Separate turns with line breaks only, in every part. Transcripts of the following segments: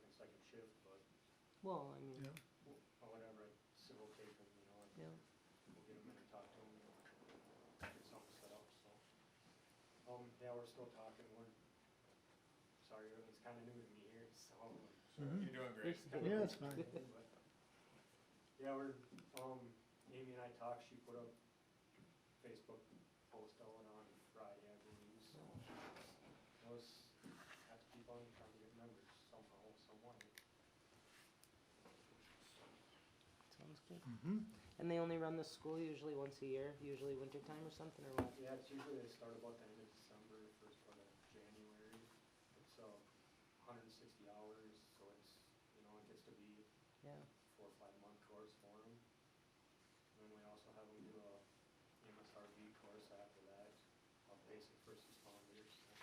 shift, but
Well, I mean,
Yeah.
wh- whatever, civil tape them, you know,
yeah,
and we'll get them in and talk to them. Get something set up, so. Um, yeah, we're still talking, we're, sorry, everything's kinda new to me here, so.
Mhm.
You're doing great.
It's
kinda
Yeah, it's fine.
but- Yeah, we're, um, Amy and I talked, she put up Facebook post on on Friday, I believe, so. Those have to keep on trying to get members somehow, someone.
sounds good.
Mhm.
And they only run the school usually once a year, usually wintertime or something, or what?
Yeah, it's usually they start about the end of December, first part of January. It's uh hundred and sixty hours, so it's, you know, it gets to be
Yeah,
four or five month course for them. And then we also have them do a MSRV course after that, of basic first responders. so-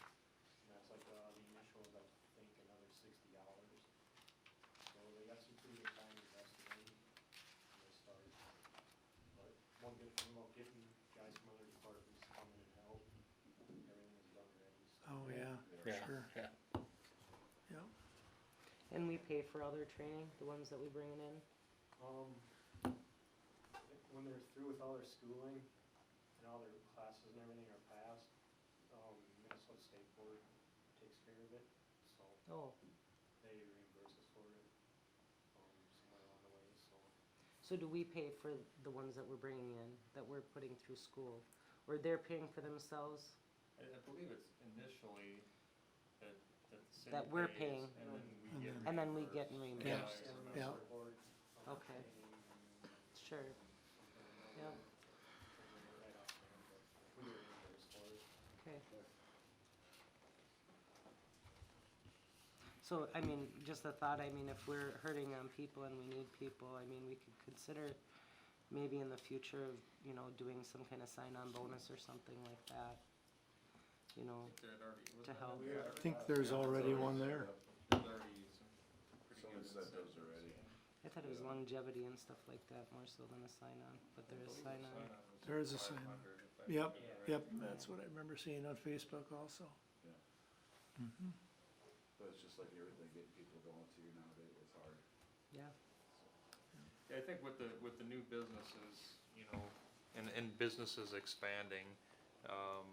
And that's like, uh, the initial, I think, another sixty hours. So they got some pretty good time invested in, when they start. But one good thing about getting guys from other departments coming and help, everything is done ready, so.
Oh, yeah,
Yeah,
sure.
yeah.
Yeah.
and we pay for all their training, the ones that we bring in?
Um, when they're through with all their schooling and all their classes and everything are passed, um, Minnesota State Board takes care of it, so
Oh,
they reimburse us for it, um, somewhere along the way, so.
so do we pay for the ones that we're bringing in, that we're putting through school? Or they're paying for themselves?
I, I believe it's initially that, that the city
That we're
pays,
paying.
And then we
And
get
then-
And then we get reimbursed.
reimbursed. if I
And
remember.
Yeah.
Minnesota Board, um,
Okay.
training and
Sure,
something or
Yeah.
another, I can't remember right offhand, but We were reimbursed for it.
okay. So, I mean, just the thought, I mean, if we're hurting on people and we need people, I mean, we could consider maybe in the future, of, you know, doing some kind of sign-on bonus or something like that. You know,
I think there had already- wasn't
To
there
help.
already-
I think there's already one there.
There's already some pretty
Someone
good
said those
incentives.
already.
I thought it was
Yeah.
longevity and stuff like that more so than a sign-on, but there is sign-on.
was
There is a sign-on.
500, if I
Yep,
remember right.
Yep, that's what I remember seeing on Facebook also.
Yeah.
Mhm.
But it's just like everything, getting people going to nowadays, it's hard.
Yeah,
Yeah, I think with the, with the new businesses, you know, and, and businesses expanding, um,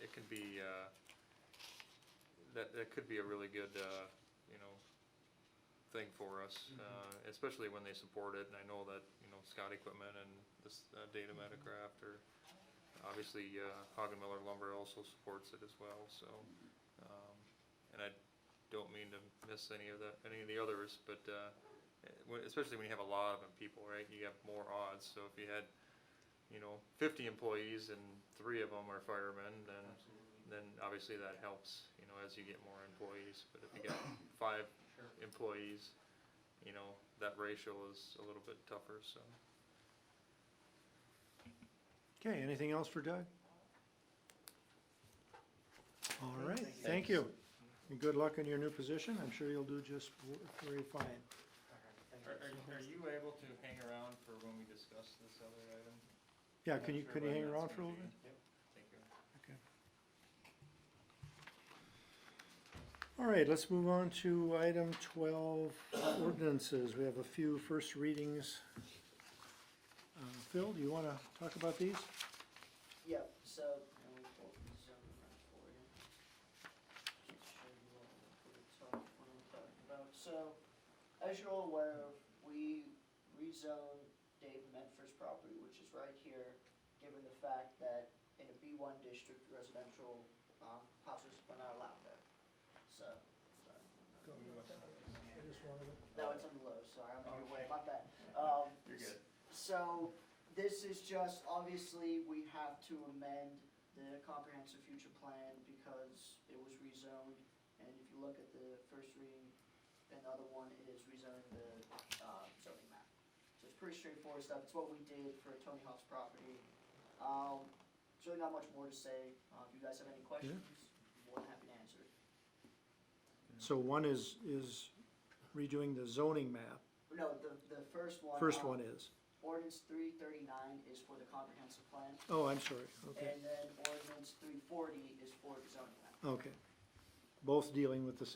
it can be, uh, that, that could be a really good, uh, you know, thing for us, uh, especially when they support it, and I know that, you know, Scott Equipment and this, uh, Data Metacraft or, obviously, uh, Hagen Miller Lumber also supports it as well, so, um, and I don't mean to miss any of the, any of the others, but, uh, eh, when- especially when you have a lot of them people, right? You have more odds. So if you had, you know, 50 employees and three of them are firemen, then
Absolutely.
then obviously that helps, you know, as you get more employees. But if you got five
Sure.
employees, you know, that ratio is a little bit tougher. So
Okay, anything else for Doug? All right, thank you. And good luck in your new position. I'm sure you'll do just w- very fine.
All right, thank
are,
you.
are, are you able to hang around for when we discuss this other item?
Yeah,
Not
can you,
sure
can you
when
hang
that's
around for a
gonna
little bit?
be. Thank you.
Okay. All right, let's move on to item twelve, ordinances. We have a few first readings. Uh, Phil, do you wanna talk about these?
Yep, so, I will pull the zone map for you. Just show you what we're talking, what I'm talking about. So, as you're all aware of, we rezoned Dave Medford's property, which is right here, given the fact that in a B one district, residential, um, houses are not allowed there. So, sorry. No, it's on the low, sorry, I'm on your way, my bad. Um,
You're good.
so, this is just, obviously, we have to amend the comprehensive future plan because it was rezoned. And if you look at the first reading, and the other one is rezoning the, uh, zoning map. So it's pretty straightforward stuff, it's what we did for Tony Hawk's property. Um, there's really not much more to say, uh, if you guys have any questions, more than happy to answer.
So one is, is redoing the zoning map.
No, the, the first one.
First
um,
one is.
Ordinance three thirty-nine is for the comprehensive plan,
Oh, I'm sorry. Okay,
and then ordinance three forty is for the zoning map.
okay. Both dealing with the